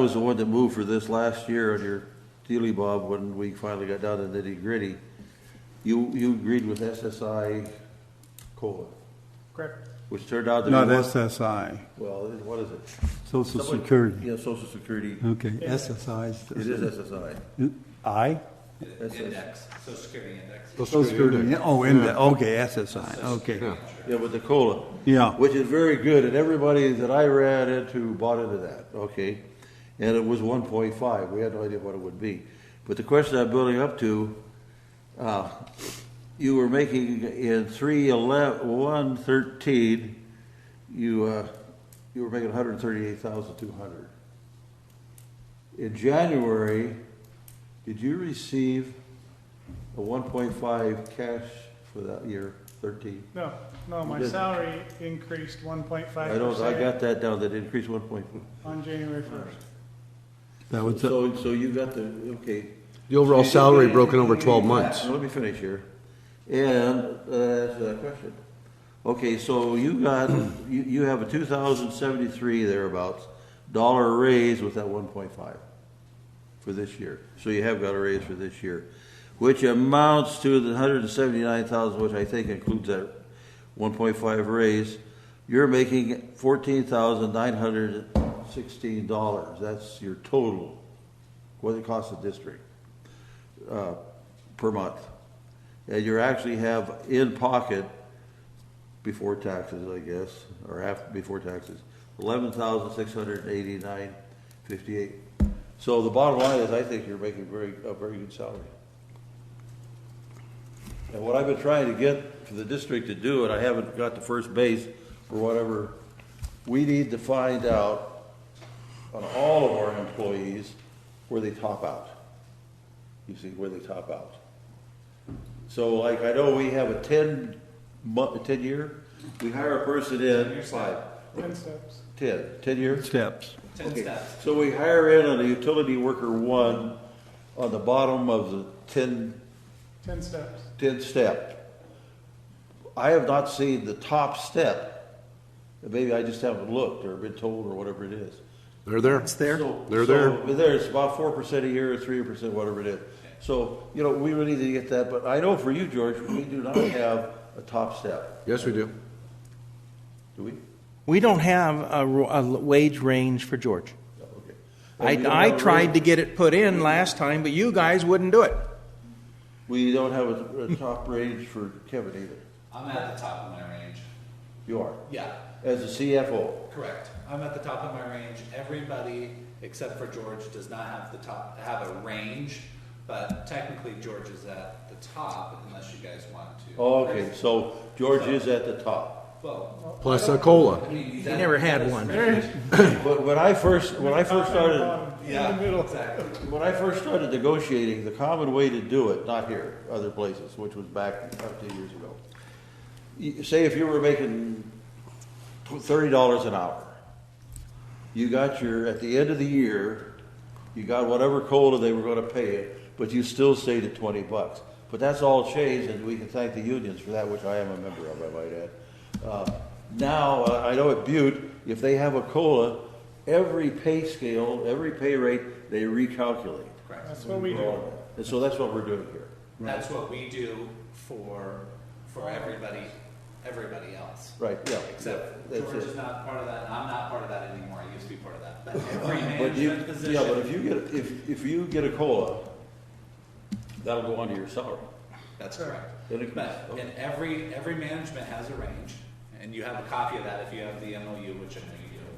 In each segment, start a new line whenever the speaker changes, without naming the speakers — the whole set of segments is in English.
I was the one that moved for this last year on your dealy bob when we finally got down to nitty gritty. You, you agreed with SSI COLA,
Correct.
which turned out to be.
Not
one-
SSI,
Well, it- what is it?
Social
Someone-
Security.
Yeah, social security.
Okay, SSI
It
is.
is SSI.
I?
SS
Index, social security index.
Social Security, oh, in the, okay, SSI, okay.
Yeah, with the COLA.
Yeah.
Which is very good, and everybody that I ran into bought into that, okay? And it was one point five, we had no idea what it would be. But the question I'm building up to, uh, you were making in three eleven, one thirteen, you, uh, you were making hundred and thirty-eight thousand two hundred. In January, did you receive a one point five cash for that year thirteen?
No, no, my
didn't.
salary increased one point five
I don't, I
percent
got that down, that increased one point.
on January first.
That was, a-
So, so you got the, okay.
The overall salary broken over 12 months.
Now, Let me finish here. And, uh, answer that question. Okay, so you got, you, you have a two thousand seventy-three thereabouts dollar raise with that one point five for this year. So you have got a raise for this year, which amounts to the hundred and seventy-nine thousand, which I think includes that one point five raise. You're making fourteen thousand nine hundred sixteen dollars. That's your total, what it costs the district uh, per month. And you actually have in pocket, before taxes, I guess, or after, before taxes, eleven thousand six hundred eighty-nine fifty-eight. So the bottom line is, I think you're making very, a very good salary. And what I've been trying to get for the district to do, and I haven't got the first base or whatever, we need to find out on all of our employees where they top out you see where they top out. So like, I know we have a ten month, ten year, we hire a person in, five,
Ten steps.
ten, ten years?
steps.
Ten
Okay.
steps.
So we hire in on a utility worker one on the bottom of the ten,
Ten steps.
ten step. I have not seen the top step, maybe I just haven't looked or been told or whatever it is.
They're there.
So-
They're
so
there.
There, it's about four percent a year, or three percent, whatever it is. So, you know, we really need to get that, but I know for you, George, we do not have a top step,
Yes, we do.
do we?
We don't have a, ro- a l- wage range for George.
No, okay. And we don't
I, I
have a
tried
rate.
to get it put in last time, but you guys wouldn't do it.
We don't have a, a top range for Kevin either.
I'm at the top of my range.
You are,
Yeah,
as a CFO.
correct. I'm at the top of my range. Everybody except for George does not have the top, have a range, but technically George is at the top unless you guys want to.
Oh, Okay, so George is at the top.
Well,
Plus a cola.
I mean.
He never had one.
But when I first, when I first started,
In the middle.
Exactly.
When I first started negotiating, the common way to do it, not here, other places, which was back about two years ago. You- Say if you were making tw- thirty dollars an hour, you got your, at the end of the year, you got whatever COLA they were gonna pay it, but you still stayed at twenty bucks. But that's all changed, and we can thank the unions for that, which I am a member of, I might add. Uh, Now, uh, I know at Butte, if they have a COLA, every pay scale, every pay rate, they recalculate.
Correct.
That's what we do.
And so that's what we're doing here.
That's what we do for, for everybody, everybody else.
Right, yeah.
Except
yeah,
George
that's it.
is not part of that, and I'm not part of that anymore, I used to be part of that, but every
But you,
management position.
yeah, but if you get, if, if you get a COLA, that'll go onto your salary.
That's correct.
Then it
But,
comes-
and every, every management has a range, and you have a copy of that if you have the MOU, which I know you do.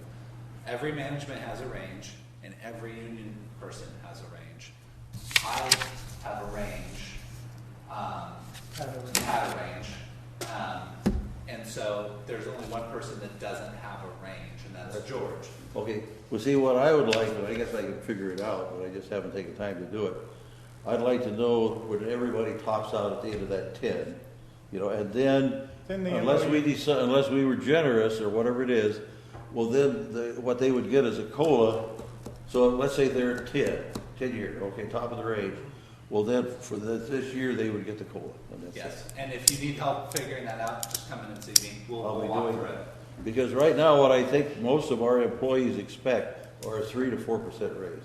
Every management has a range, and every union person has a range. I have a range, um, have a range, um, and so there's only one person that doesn't have a range, and that's George.
Okay, well, see, what I would like, and I guess I can figure it out, but I just haven't taken time to do it. I'd like to know when everybody tops out at the end of that ten, you know, and then,
Then the
unless we
employee-
decide, unless we were generous or whatever it is, well, then, the, what they would get is a COLA. So let's say they're at ten, ten year, okay, top of the range. Well, then, for this, this year, they would get the COLA. and that's it.
Yes, and if you need help figuring that out, just come in and see me, we'll
I'll
we'll
be
walk
doing
through it.
that. Because right now, what I think most of our employees expect or a three to four percent raise.